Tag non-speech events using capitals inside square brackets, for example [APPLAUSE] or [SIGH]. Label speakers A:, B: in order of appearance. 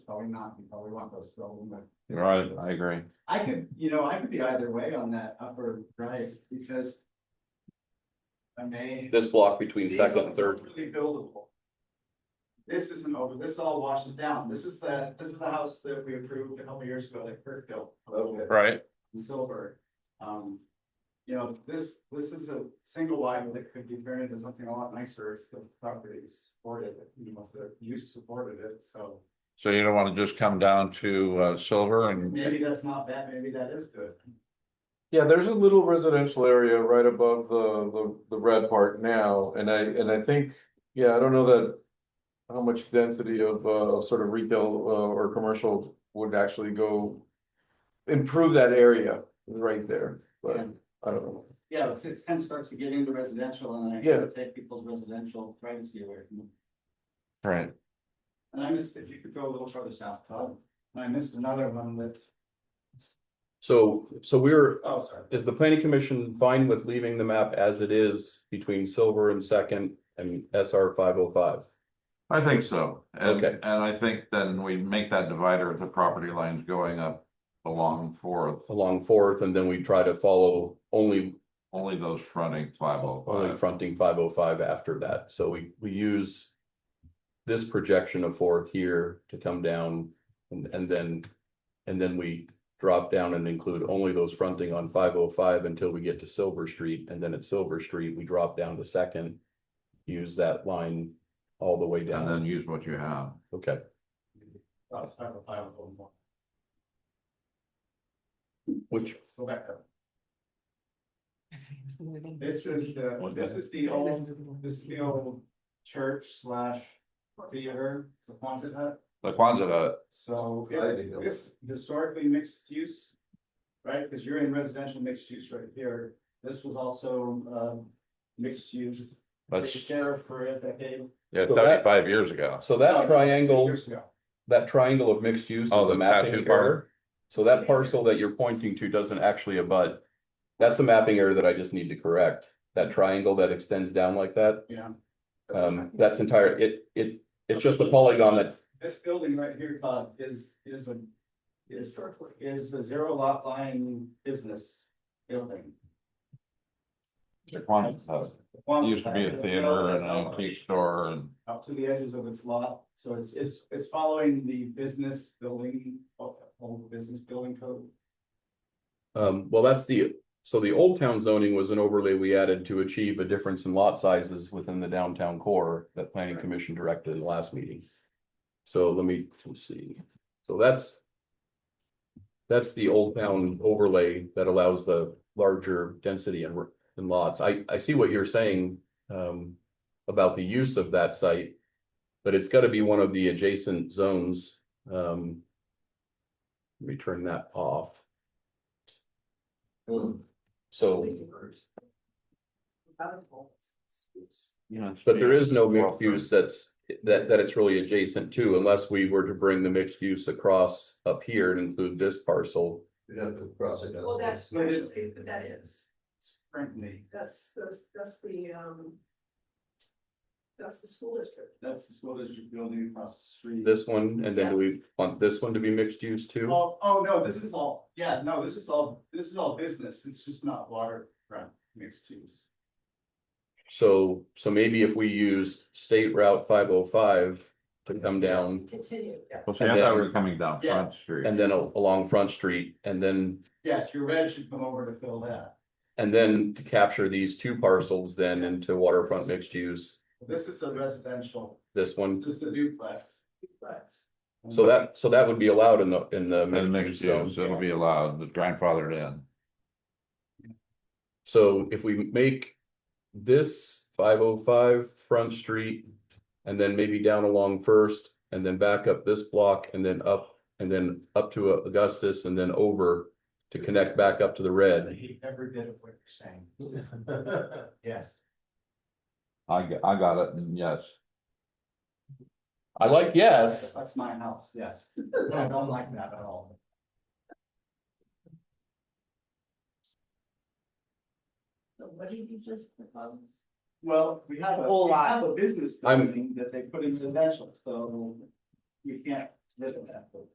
A: probably not, you probably want those filled with.
B: Right, I agree.
A: I could, you know, I could be either way on that upper right, because. I may.
C: This block between
A: These
C: second
A: are
C: and third,
A: Really buildable. This isn't over, this all washes down, this is the, this is the house that we approved a couple years ago that Kirk built.
B: Right,
A: and silver. Um, you know, this, this is a single wide that could be turned into something a lot nicer if the property supported, it, you know, if the use supported it, so.
B: so you don't wanna just come down to uh silver and,
A: Maybe that's not bad, maybe that is good.
D: Yeah, there's a little residential area right above the, the, the red part now, and I, and I think, yeah, I don't know that. How much density of, uh, of sort of retail, uh, or commercial would actually go. Improve that area right there, but
A: Yeah.
D: I don't know.
A: Yeah, it's, it's kind of starts to get into residential and I
D: Yeah.
A: take people's residential privacy away from them.
B: right,
A: And I missed, if you could go a little further south, Todd, and I missed another one that,
C: so, so we're,
A: oh, sorry.
C: is the planning commission fine with leaving the map as it is between Silver and Second and SR five oh five?
B: I think so. And
C: Okay.
B: and I think then we make that divider if the property line's going up along Fourth,
C: Along Fourth, and then we try to follow only,
B: only those fronting five oh
C: only
B: five.
C: fronting five oh five after that, so we, we use. This projection of Fourth here to come down and, and then, and then we drop down and include only those fronting on five oh five until we get to Silver Street, and then at Silver Street, we drop down to Second. Use that line all the way
B: And then
C: down,
B: use what you have.
C: okay,
A: Oh, it's five oh five, a little more.
C: which,
A: Go back up. This [LAUGHS]
E: This
A: is the,
C: One
A: this
C: minute.
A: is the old This is the old church slash theater, the Quonset hut,
B: The Quonset hut,
A: so it- this historically mixed use. Right, because you're in residential mixed use right here, this was also um mixed use.
B: that's
A: Took Care of for a decade.
B: yeah,
C: So that-
B: thirty-five years ago.
C: so
A: No, no,
C: that
A: two
C: triangle.
A: years ago.
C: that triangle of mixed use
B: Oh,
C: is
B: the
C: a
B: tattoo
C: mapping
B: part.
C: error. So that parcel that you're pointing to doesn't actually abut. That's a mapping error that I just need to correct. That triangle that extends down like that,
A: Yeah.
C: um, that's entire, it, it, it's just a polygon that,
A: This building right here, Todd, is, is a, is, is a zero lot line business building.
B: The Quonset hut,
A: The Quonset
B: used to be
A: hut
B: a
A: is
B: theater
A: built as
B: and an
A: a-
B: antique store and
A: up to the edges of its lot, so it's, it's, it's following the business building, uh, old business building code.
C: um, well, that's the. So the old town zoning was an overlay we added to achieve a difference in lot sizes within the downtown core that planning commission directed in the last meeting. So let me, let's see, so that's. That's the old town overlay that allows the larger density and in lots. I I see what you're saying um about the use of that site. But it's gotta be one of the adjacent zones. Um. Let me turn that off. So, but there is no mixed use that's that that it's really adjacent to unless we were to bring the mixed use across up here and include this parcel.
F: You'd have to cross it.
E: Well, that's,
A: But it-
E: actually, but that is,
A: Currently,
E: that's, that's, that's the, um. That's the school district.
A: that's the school district building across the street.
C: This one, and then do we want this one to be mixed use too?
A: Oh, oh, no, this is all, yeah, no, this is all, this is all business, it's just not waterfront mixed use.
C: So, so maybe if we used State Route five oh five to come down
E: Continue, yeah.
B: Well, see,
C: And
B: I thought we
C: then-
B: were coming down
A: Yeah.
B: Front Street.
C: and then al- along Front Street and then,
A: Yes, your red should come over to fill that.
C: and then to capture these two parcels then into waterfront mixed use,
A: This is a residential,
C: this one.
A: just a duplex.
E: But
C: So that, so that would be allowed in the, Mm-hmm. in the
B: And
C: mixed use
B: mixed
C: zone.
B: use, it'll be allowed, the grandfathered in.
C: So if we make this five oh five Front Street and then maybe down along First and then back up this block and then up and then up to Augustus and then over to connect back up to the
A: I
C: red.
A: hate every bit of what you're saying. Yes.
B: I, g- I got it, and yes.
C: I like yes.
A: That's my house, yes. I don't like that at all.
E: So what did you just propose?
A: Well, we have a,
E: Whole
A: we
E: lot.
A: have a business
C: I'm-
A: building that they put in residential, so you can't live in that.